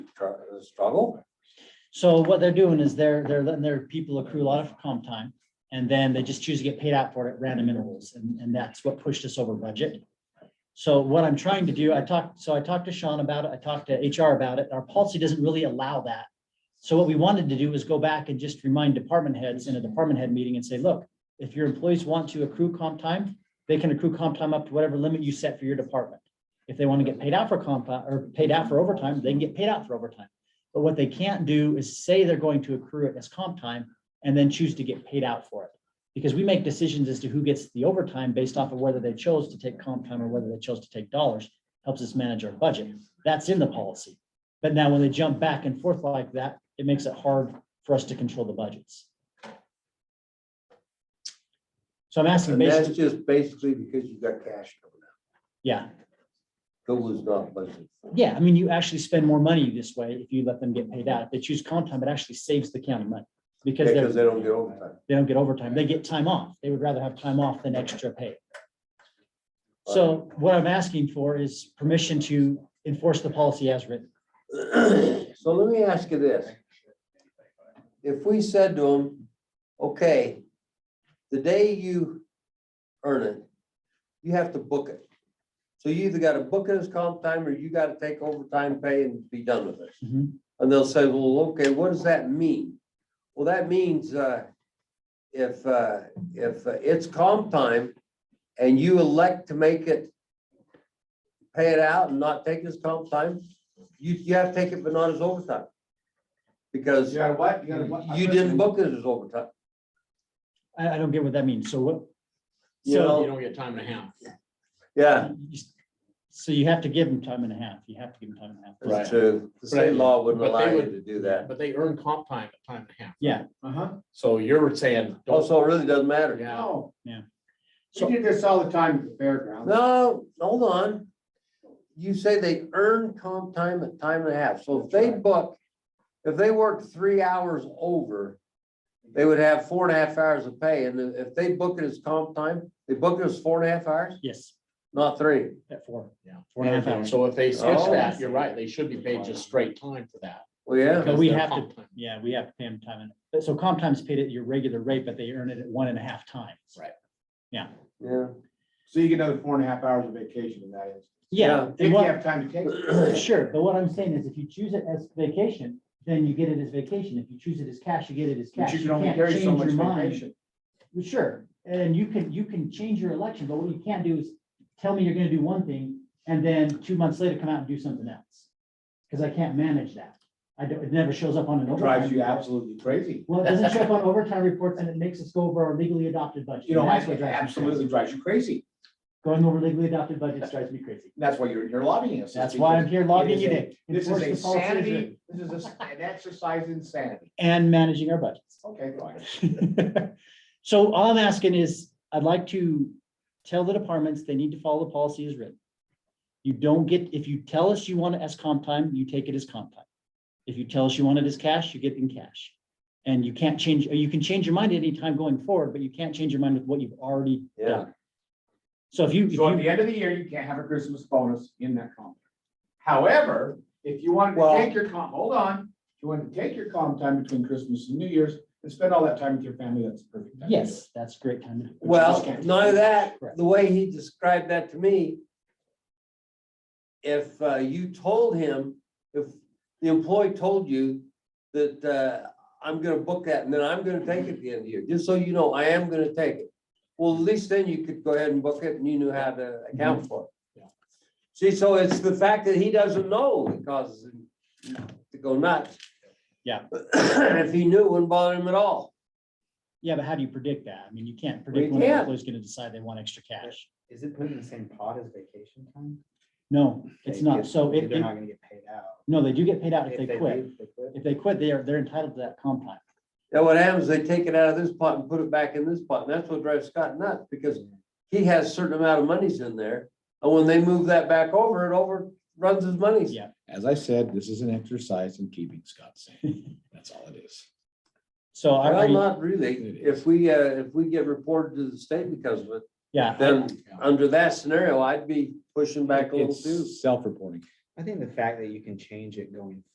str- struggle. So what they're doing is they're, they're letting their people accrue a lot of comp time. And then they just choose to get paid out for it at random intervals. And, and that's what pushed us over budget. So what I'm trying to do, I talked, so I talked to Sean about it. I talked to HR about it. Our policy doesn't really allow that. So what we wanted to do was go back and just remind department heads in a department head meeting and say, look, if your employees want to accrue comp time, they can accrue comp time up to whatever limit you set for your department. If they want to get paid out for comp, uh, or paid out for overtime, they can get paid out for overtime. But what they can't do is say they're going to accrue it as comp time and then choose to get paid out for it. Because we make decisions as to who gets the overtime based off of whether they chose to take comp time or whether they chose to take dollars, helps us manage our budget. That's in the policy. But now when they jump back and forth like that, it makes it hard for us to control the budgets. So I'm asking And that's basically, just basically because you got cash coming out. yeah, That was not budgeted. for. yeah, I mean, you actually spend more money this way if you let them get paid out. If they choose comp time, it actually saves the county money. Because they're. Because they don't get overtime. they don't get overtime. They get time off. They would rather have time off than extra pay. So what I'm asking for is permission to enforce the policy as written. So let me ask you this. If we said to them, okay, the day you earn it, you have to book it. So you either gotta book it as comp time or you gotta take overtime pay and be done with it. Mhm. And they'll say, well, okay, what does that mean? Well, that means, uh, if, uh, if it's comp time and you elect to make it, pay it out and not take it as comp time, you, you have to take it, but not as overtime. Because Yeah, what? gotta what? you didn't book it as overtime. I, I don't get what that means. So what? You So, Oh. know? You don't get time and a half. Yeah, you- so you have to give them time and a half. You have to give them time and a half. that's true. The state law wouldn't But allow they you would- to do that. But they earn comp time at time and a half. Yeah. Uh-huh. So you're saying, don't, Also, it really doesn't matter. yeah, No. Yeah. So- We did this all the time at the fairgrounds. No, hold on. You say they earn comp time at time and a half. So if they book, if they work three hours over, they would have four and a half hours of pay. And if they book it as comp time, they book it as four and a half hours, Yes, not three. at four. yeah. Four and a half hours. So if they switch Oh. that, you're right, they should be paid just straight time for that. Well, yeah. Because we Their have to- comp time. Yeah, we have to pay them time. and- but So comp time's paid at your regular rate, but they earn it at one and a half times. Right. Yeah. So you get another four and a half hours of vacation in that is. Yeah. If and you what- have time to take. it. Sure, but what I'm saying is if you choose it as vacation, then you get it as vacation. If you choose it as cash, you get it as But cash. you can only can't carry change so your much mind. vacation. Well, Sure, and you can, you can change your election, but what you can't do is tell me you're gonna do one thing and then two months later come out and do something else. Cause I can't manage that. I don't, it never shows up on an overtime. Drives you report. absolutely crazy. Well, it doesn't show up on overtime reports and it makes us go over our legally adopted budget. You know, That's what it drives me crazy. absolutely drives you crazy. Going over legally adopted budgets drives me crazy. That's why you're, you're lobbying us. That's why I'm here logging It is it a- in. This is Enforce a the policy as written sanity, this is a- an exercise in sanity. And managing our budgets. Okay, fine. So all I'm asking is, I'd like to tell the departments they need to follow the policy as written. You don't get, if you tell us you want it as comp time, you take it as comp time. If you tell us you want it as cash, you get it in cash. And you can't change, or you can change your mind at any time going forward, but you can't change your mind with what you've already Yeah. done. So if you, if So at you, the end of the year, you can't have a Christmas bonus in that comp. However, if you wanted Well- to take your comp, hold on, if you wanted to take your comp time between Christmas and New Year's and spend all that time with your family, that's perfect. time to do it. yes, that's a great time. to do it. Well, none of that, the way he described that to me. If uh, you told him, if the employee told you that uh, I'm gonna book that and then I'm gonna take it at the end of the year, just so you know, I am gonna take it. Well, at least then you could go ahead and book it and you knew how to account for it. Yeah. See, so it's the fact that he doesn't know that causes him to go nuts. Yeah. If he knew, it wouldn't bother him at all. Yeah, but how do you predict that? I mean, you can't predict We when an can't. employee's gonna decide they want extra cash. Is it put in the same pot as vacation time? No, it's They not. get- So it, They're it- not gonna get paid out. no, they do get paid out if If they they quit. leave, they quit. If they quit, they are, they're entitled to that comp time. Now what happens, they take it out of this pot and put it back in this pot, and that's what drives Scott nuts, because he has certain amount of monies in there. And when they move that back over, it overruns his monies. Yeah. As I said, this is an exercise in keeping Scott sane. That's all it is. So I, Well, I- not really. It If we, uh, if we get reported to the state because of it, yeah, I- then under that scenario, I'd be pushing back a little too. It's self-reporting. I think the fact that you can change it going